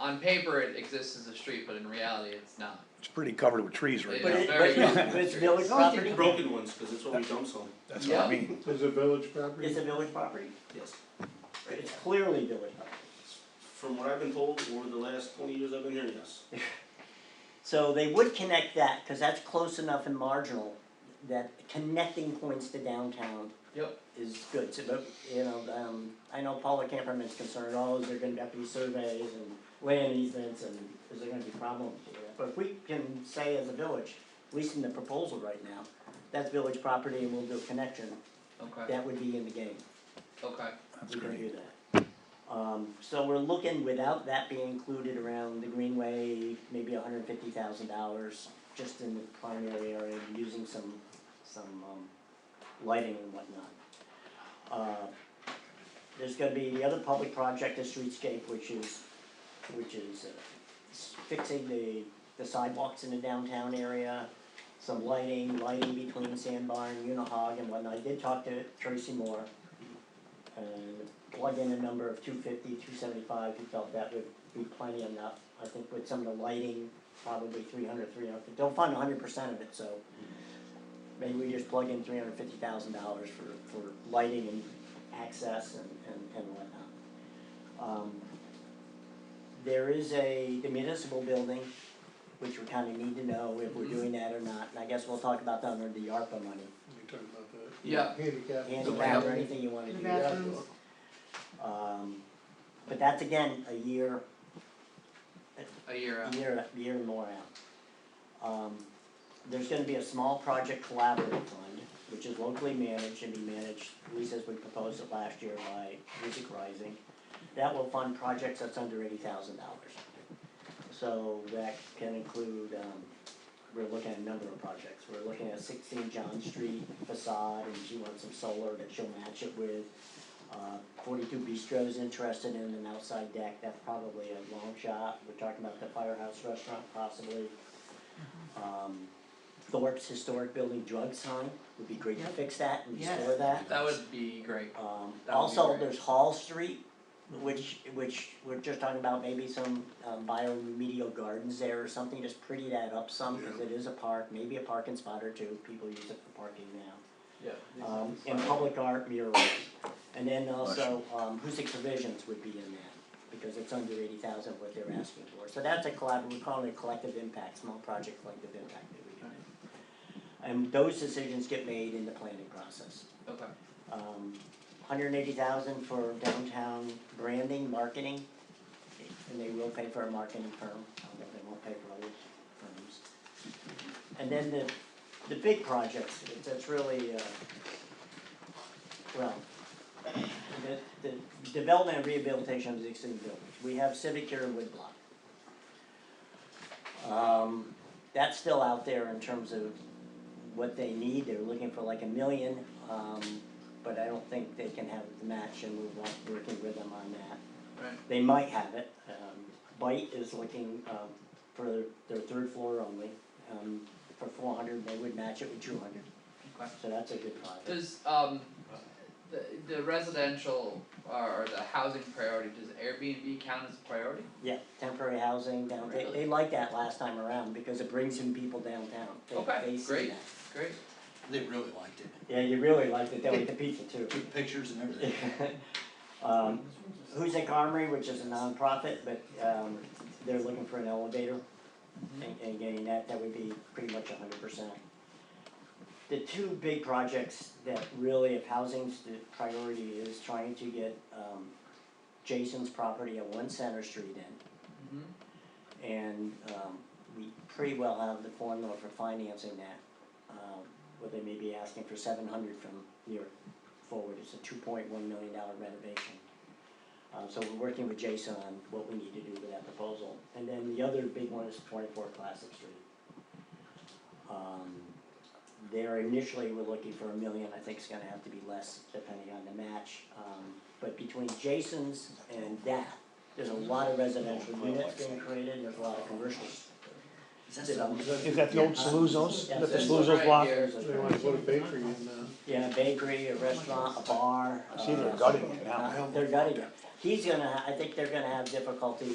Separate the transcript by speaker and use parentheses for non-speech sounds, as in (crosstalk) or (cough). Speaker 1: on paper, it exists as a street, but in reality, it's not.
Speaker 2: It's pretty covered with trees right
Speaker 1: It
Speaker 3: But
Speaker 1: is
Speaker 2: now,
Speaker 3: it-
Speaker 2: (laughs)
Speaker 1: very
Speaker 3: but-
Speaker 1: young.
Speaker 3: but it's village
Speaker 4: Those are
Speaker 3: property?
Speaker 4: the broken ones, cause that's where we dump some,
Speaker 2: that's what I
Speaker 1: Yeah.
Speaker 2: mean.
Speaker 5: Is it village property?
Speaker 3: It's a village property,
Speaker 4: yes.
Speaker 3: it's clearly village property.
Speaker 4: From what I've been told over the last twenty years I've been here, yes.
Speaker 3: So they would connect that, cause that's close enough and marginal, that connecting points to downtown
Speaker 1: Yep.
Speaker 3: is good, so, but, you know, um, I know Paula Camperman's concerned, oh, is there gonna have to be surveys and land easements and is there gonna be problems with that? But if we can say as a village, at least in the proposal right now, that's village property and we'll do a connection,
Speaker 1: Okay,
Speaker 3: that would be in the game,
Speaker 1: okay.
Speaker 2: That's
Speaker 3: we can
Speaker 2: great.
Speaker 3: do that. Um, so we're looking, without that being included around the greenway, maybe hundred fifty thousand dollars, just in the primary area, using some, some, um, lighting and whatnot. Uh, There's gonna be the other public project, the streetscape, which is, which is uh, s- fixing the, the sidewalks in the downtown area, some lighting, lighting between Sandbar and Unihog and whatnot, I did talk to Tracy Moore. And plug in a number of 250, 275. he felt that would be plenty enough, I think with some of the lighting, probably 300, 300. they'll fund hundred percent of it, so. Maybe we just plug in three hundred fifty thousand dollars for, for lighting and access and, and, and whatnot. Um, There is a, the municipal building, which we kinda need to know if we're doing that or not, and I guess we'll talk about that under the ARPA money.
Speaker 5: We talking about the
Speaker 1: Yeah.
Speaker 5: handicap.
Speaker 3: Handicap or anything you wanna do.
Speaker 5: Yeah.
Speaker 3: Um, but that's again, a year,
Speaker 1: A year out.
Speaker 3: a year, a year and more out. Um, there's gonna be a small project collaborative fund, which is locally managed and be managed, at least as we proposed it last year by Music Rising. That will fund projects that's under eighty thousand dollars. So that can include, um, we're looking at a number of projects, we're looking at sixteen John Street facade, and she wants some solar that she'll match it with. Uh, Forty-two Bistro's interested in an outside deck, that's probably a long shot, we're talking about the firehouse restaurant possibly.
Speaker 6: Mm-hmm.
Speaker 3: Um, Thorpe's historic building drug sign, would be great to
Speaker 6: Yep.
Speaker 3: fix that and
Speaker 6: Yes.
Speaker 3: restore that.
Speaker 1: That would be great.
Speaker 3: Um,
Speaker 1: That would be
Speaker 3: also,
Speaker 1: great.
Speaker 3: there's Hall Street, which, which we're just talking about maybe some, um, bioremedial gardens there or something, just pretty that up some, cause it is a park, maybe a parking spot or two, people use it for parking now.
Speaker 1: Yeah.
Speaker 3: Um, and public art murals, and then also, um, Husick Provisions would be in that, because it's under eighty thousand what they're asking for, so that's a collab, we call it a collective impact, small project collective impact that we do. And those decisions get made in the planning process
Speaker 1: Okay.
Speaker 3: um, hundred and eighty thousand for downtown branding, marketing. And they will pay for a marketing firm, I don't know if they won't pay for other firms. And then the, the big projects, it- that's really, uh, well, the, the development and rehabilitation of the existing buildings, we have Civic here in Woodblock. Um, that's still out there in terms of what they need, they're looking for like a million, um, but I don't think they can have the match and we're wa- working with them on that.
Speaker 1: Right.
Speaker 3: They might have it, um, Bite is looking, um, for their, their third floor only, um, for four hundred, they would match it with two hundred.
Speaker 1: Okay.
Speaker 3: So that's a good project.
Speaker 1: Does um the the residential uh, or or the housing priority, does Airbnb count as a priority?
Speaker 3: Yeah, temporary housing down, they, they liked that last time around because it brings in people downtown, they,
Speaker 1: Okay,
Speaker 3: they see
Speaker 1: great.
Speaker 3: that.
Speaker 1: Great.
Speaker 7: They really liked it.
Speaker 3: Yeah, you really liked it, they liked the pizza too.
Speaker 7: Took pictures and everything.
Speaker 3: (laughs) Um, Huzik Armory, which is a nonprofit, but, um, they're looking for an elevator. And, and getting that, that would be pretty much a hundred percent. The two big projects that really, if housing's the priority, is trying to get, um, Jason's property at One Center Street in.
Speaker 1: hmm
Speaker 3: And um we pretty well have the formula for financing that. Um what they may be asking for seven hundred from here forward, it's a two point one million dollar renovation. Um so we're working with Jason on what we need to do with that proposal. And then the other big one is twenty four Classic Street. Um there initially, we're looking for a million, I think it's gonna have to be less depending on the match. Um but between Jason's and that, there's a lot of residential units being created, there's a lot of commercials.
Speaker 7: Is that so?
Speaker 2: Is that the old Saluzos? Is that the
Speaker 3: That's
Speaker 2: Saluzos
Speaker 1: right
Speaker 2: block?
Speaker 1: here.
Speaker 3: There's
Speaker 5: They
Speaker 3: a,
Speaker 5: wanna put a bakery in, uh,
Speaker 3: yeah, a bakery, a restaurant, a bar.
Speaker 2: I see they're
Speaker 3: uh,
Speaker 2: gutting it now.
Speaker 3: uh, They're gutting it. He's gonna, I think they're gonna have difficulty